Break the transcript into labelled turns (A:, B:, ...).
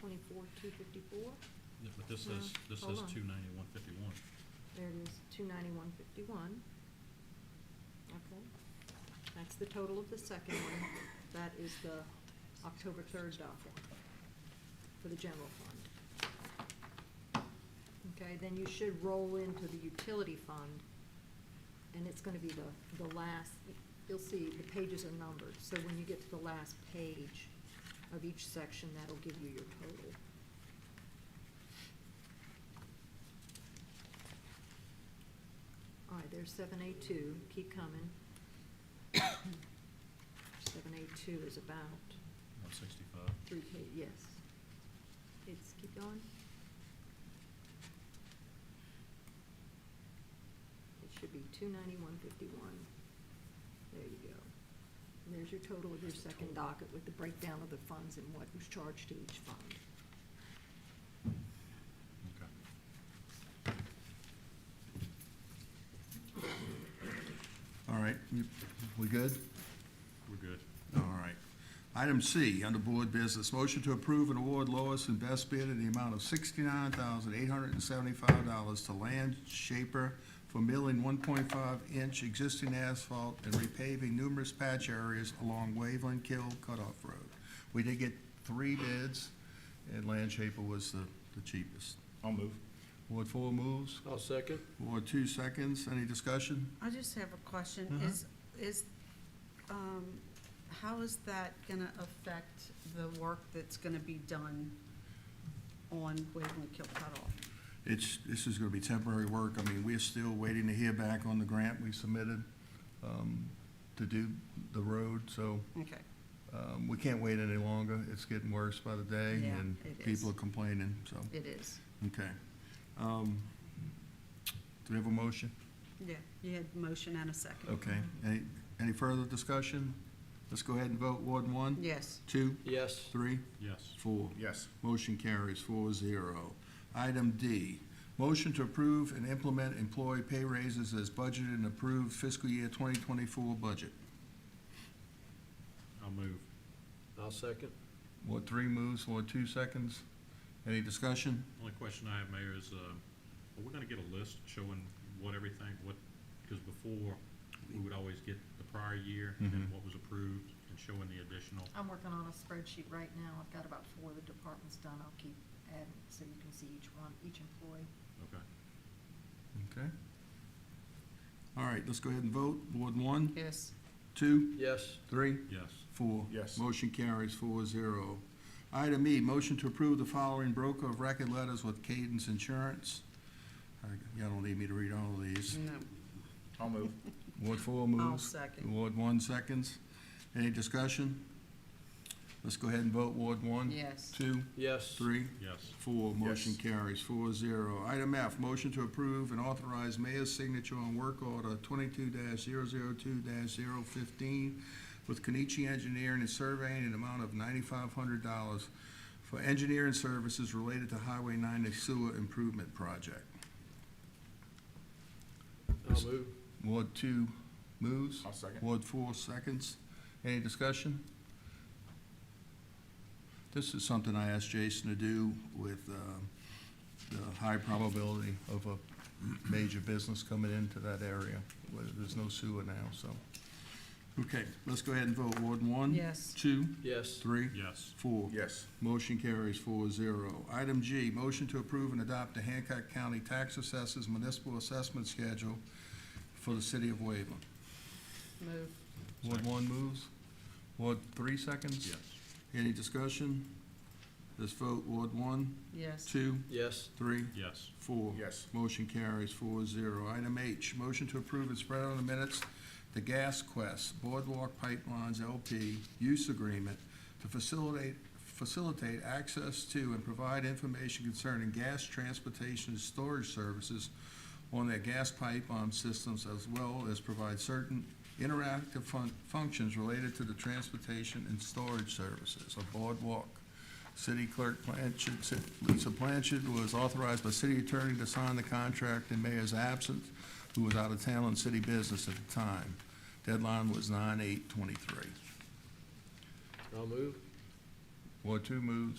A: twenty-four, two fifty-four.
B: Yeah, but this
A: No,
B: says, this
A: hold
B: says
A: on.
B: two ninety-one fifty-one.
A: There it is, two ninety-one fifty-one. Okay. That's the total of the second one. That is the October third dock one for the general fund. Okay, then you should roll into the utility fund, and it's gonna be the, the last, you'll see, the pages are numbered. So when you get to the last page of each section, that'll give you your total. All right, there's seven A two, keep coming. Seven A two is about
B: One sixty-five.
A: three pa, yes. It's, keep going. It should be two ninety-one fifty-one. There you go. And there's your total of your
B: That's the
A: second
B: total.
A: docket with the breakdown of the funds and what was charged to each fund.
B: Okay.
C: All right, you- we good?
B: We're good.
C: All right. Item C, under Board Business, motion to approve and award lowest and best bid in the amount of sixty-nine thousand eight hundred and seventy-five dollars to Land Shaper for milling one point five inch existing asphalt and repaving numerous patch areas along Waveland Kill Cutoff Road. We did get three bids, and Land Shaper was the, the cheapest.
B: I'll move.
C: Ward four moves,
D: I'll second.
C: Ward two seconds, any discussion?
E: I just have a question.
C: Uh-huh.
E: Is, is, um, how is that gonna affect the work that's gonna be done on Waveland Kill Cutoff?
C: It's, this is gonna be temporary work. I mean, we're still waiting to hear back on the grant we submitted, um, to do the road, so,
E: Okay,
C: um, we can't wait any longer. It's getting worse by the day
E: Yeah,
C: and
E: it is.
C: people are complaining, so,
E: it is.
C: okay. Um, do we have a motion?
E: Yeah, you had motion and a second.
C: Okay. Any, any further discussion? Let's go ahead and vote. Ward one,
E: Yes,
C: two,
D: Yes.
C: three,
B: Yes.
C: four.
B: Yes.
C: Motion carries four zero. Item D, motion to approve and implement employee pay raises as budgeted and approved fiscal year twenty twenty-four budget.
B: I'll move.
D: I'll second.
C: Ward three moves, Ward two seconds. Any discussion?
B: Only question I have, Mayor, is, uh, are we gonna get a list showing what everything, what, because before, we would always get the prior year and then
C: Mhm.
B: what was approved and showing the additional.
A: I'm working on a spreadsheet right now. I've got about four of the departments done. I'll keep adding, so you can see each one, each employee.
B: Okay.
C: Okay. All right, let's go ahead and vote. Ward one,
E: yes.
C: two,
D: Yes.
C: three,
B: Yes.
C: four.
B: Yes.
C: Motion carries four zero. Item E, motion to approve the following broker of record letters with Cadence Insurance. I- Y'all don't need me to read all of these.
E: No,
B: I'll move.
C: Ward four
E: I'll
C: moves.
E: second.
C: Ward one seconds. Any discussion? Let's go ahead and vote. Ward one,
E: Yes,
C: two,
D: Yes.
C: three,
B: Yes.
C: four. Motion carries four zero. Item F, motion to approve and authorize mayor's signature on work order twenty-two 2 15 with Kenichi Engineering and Surveying in an amount of ninety-five hundred dollars for engineering services related to Highway ninety sewer improvement project.
D: I'll move.
C: Ward two moves.
B: I'll second.
C: Ward four seconds. Any discussion? This is something I asked Jason to do with um, the high probability of a major business coming into that area, where there's no sewer now, so. Okay, let's go ahead and vote. Ward one?
E: yes,
C: Two?
D: Yes.
C: Three?
B: Yes.
C: Four?
B: Yes.
C: Motion carries four zero. Item G, motion to approve and adopt the Hancock County Tax Assessors Municipal Assessment Schedule for the city of Waveland.
E: move,
C: Ward one moves. Ward three seconds.
B: Yes.
C: Any discussion? Let's vote. Ward one,
E: yes,
C: two,
D: Yes.
C: three,
B: Yes.
C: four.
B: Yes.
C: Motion carries four zero. Item H, motion to approve and spread on the minutes the Gas Quest Boardwalk Pipelines LP Use Agreement to facilitate, facilitate access to and provide information concerning gas transportation and storage services on their gas pipeline systems as well as provide certain interactive fun- functions related to the transportation and storage services of Boardwalk. City Clerk Blanchard, Ci- Lisa Blanchard was authorized by city attorney to sign the contract in mayor's absence, who was out of town on city business at the time. Deadline was nine eight twenty-three.
D: I'll move.
C: Ward two moves.